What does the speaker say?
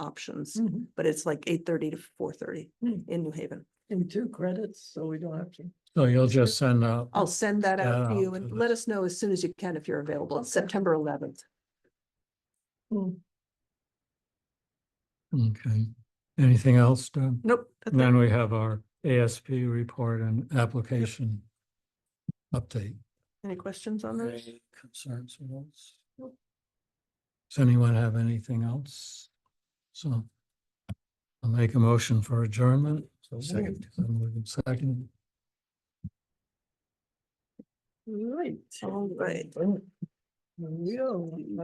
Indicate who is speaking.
Speaker 1: options,
Speaker 2: Mhm.
Speaker 1: but it's like eight thirty to four thirty
Speaker 2: Mm.
Speaker 1: in New Haven.
Speaker 2: And two credits, so we don't have to.
Speaker 3: So you'll just send out,
Speaker 1: I'll send that out to
Speaker 3: Yeah,
Speaker 1: you and
Speaker 3: so
Speaker 1: let us know as soon as you can if you're available. It's
Speaker 2: Okay.
Speaker 1: September eleventh.
Speaker 3: okay. Anything else, Deb?
Speaker 1: Nope. that's it.
Speaker 3: And Then we have our ASP report and application update.
Speaker 1: Any questions on those?
Speaker 3: Any Concerns with those? Does anyone have anything else? So I'll make a motion for adjournment.
Speaker 2: Second.
Speaker 3: Second.
Speaker 2: Right. Oh,
Speaker 1: All right.
Speaker 2: Yeah.